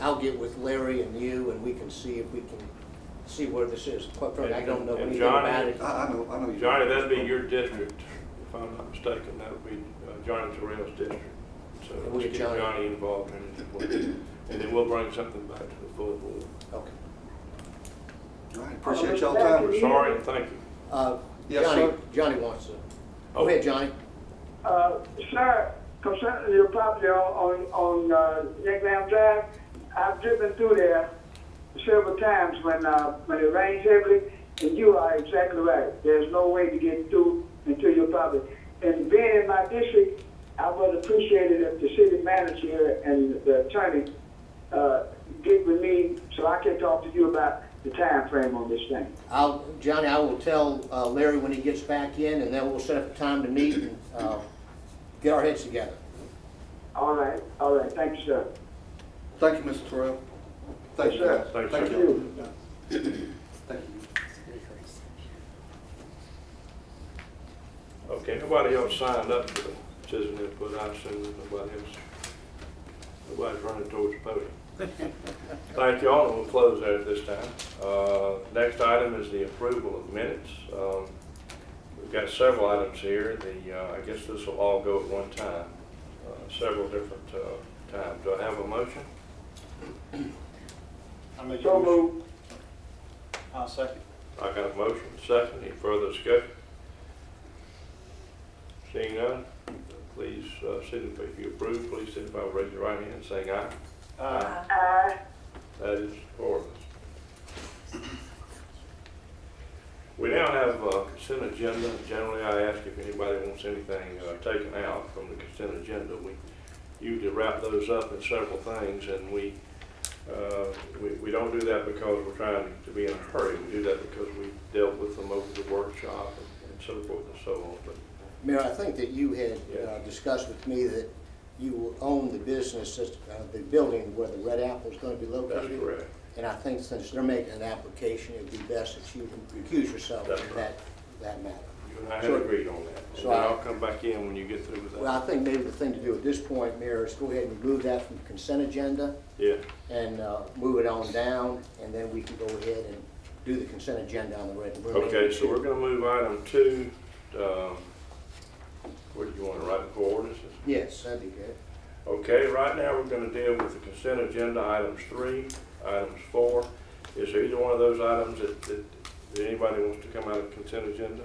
I'll get with Larry and you, and we can see if we can, see where this is. Quite frankly, I don't know And- and anything Johnny- about it. I, I know, I know. you- Johnny, that'd be your district, if I'm not mistaken, that would be uh, Johnny Terrell's district. So And we let's get get Johnny. Johnny involved in it, as well. and then we'll bring something back to the full board. Okay. All right, Appreciate y'all time. We're sorry and thank you. Uh, Yes, Johnny, sir. Johnny wants to, Oh. go ahead, Johnny. Uh, sir, concerning your property on, on, on, uh, Yankland Drive, I've driven through there several times when, uh, when it rains heavily, and you are exactly right. There's no way to get through into your property. And being in my district, I would appreciate it if the city manager and the attorney, uh, get with me so I can talk to you about the time frame on this thing. I'll, Johnny, I will tell uh, Larry when he gets back in, and then we'll set up a time to meet and uh, get our heads together. All right, all right, thank you, sir. Thank you, Mr. Terrell. Thank you, Yes, guys. sir. Thanks, Thank sir. you. Thank you. Okay, nobody else signed up for the citizen input, I assume nobody else. Nobody's running towards the podium. Thank you all, and we'll close there at this time. Uh, Next item is the approval of minutes. Um, We've got several items here, the, uh, I guess this will all go at one time, uh, several different uh, times. Do I have a motion? I make a So motion. moved. I'll second. I got a motion, second, any further discussion? Seeing none, please uh, signify if you approve, please signify by raising your right hand and saying aye. Uh, Aye. That is ordinance. We now have a consent agenda. Generally, I ask if anybody wants anything uh, taken out from the consent agenda. We usually wrap those up in several things, and we, uh, we we don't do that because we're trying to be in a hurry. We do that because we dealt with them over the workshop and and so forth and so on. But Mayor, I think that you had uh, Yes. discussed with me that you will own the business, that's, uh, the building where the Red Apple's gonna be located. That's correct. And I think since they're making an application, it'd be best if you recuse yourself That's from right. that, that matter. You and I had Sure. agreed on that. And So then I- I'll come back in when you get through with Well, I that. think maybe the thing to do at this point, Mayor, is go ahead and remove that from the consent agenda Yeah, and uh, move it on down, and then we can go ahead and do the consent agenda on the red. okay, so we're gonna move item two, um, where do you wanna write it for ordinances? Yes, that'd be good. Okay, right now, we're gonna deal with the consent agenda, items three, items four. Is there either one of those items that, that, that anybody wants to come out of consent agenda?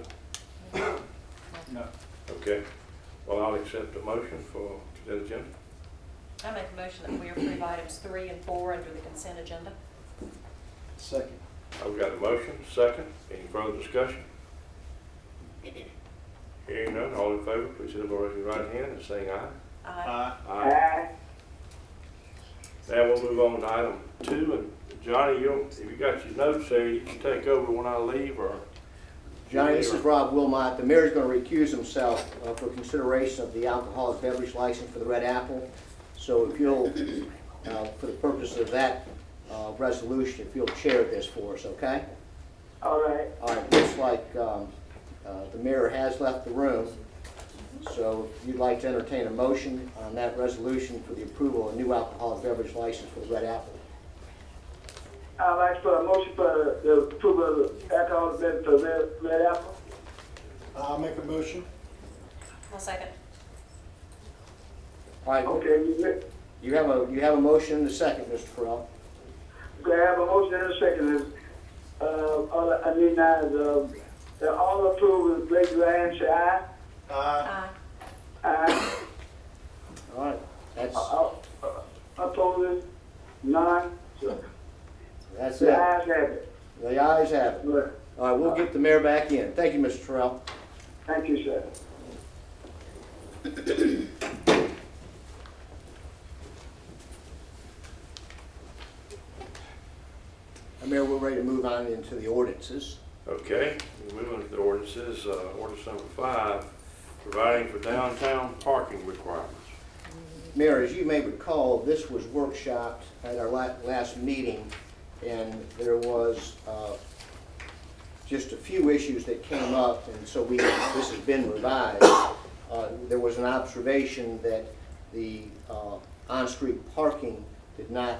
no. Okay, well, I'll accept a motion for consent agenda. I make a motion that we approve items three and four under the consent agenda. Second. I've got a motion, second, any further discussion? Hearing none, all in favor, please signify by raising your right hand and saying aye. Aye. Aye. Aye. Now we'll move on to item two, and Johnny, you'll, if you got your notes there, you can take over when I leave, or? Johnny, this is Rob Wilmot. The mayor's going to recuse himself uh, for consideration of the alcoholic beverage license for the Red Apple. So if you'll, uh, for the purpose of that uh, resolution, if you'll chair this for us, okay? All right. All right, looks like um, uh, the mayor has left the room. So if you'd like to entertain a motion on that resolution for the approval of new alcoholic beverage license for the Red Apple. I'd like for a motion for the approval of alcohol beverage for Red, Red Apple. I'll make a motion. I'll second. All right, Okay, you re- you have a, you have a motion and a second, Mr. Terrell. do I have a motion and a second? Uh, all I I need now is, um, that all approve, raise your hand, say aye. Aye. Aye. Aye. All right, that's, Uh, uh, Opposed, none. that's The it. ayes have it. The ayes have it. Good. All right, we'll get the mayor back in. Thank you, Mr. Terrell. Thank you, sir. Uh, Mayor, we're ready to move on into the ordinances. Okay, we move on to the ordinances, uh, ordinance number five, providing for downtown parking requirements. Mayor, as you may recall, this was workshopped at our la- last meeting, and there was uh, just a few issues that came up, and so we, this has been revised. Uh, There was an observation that the uh, on-street parking did not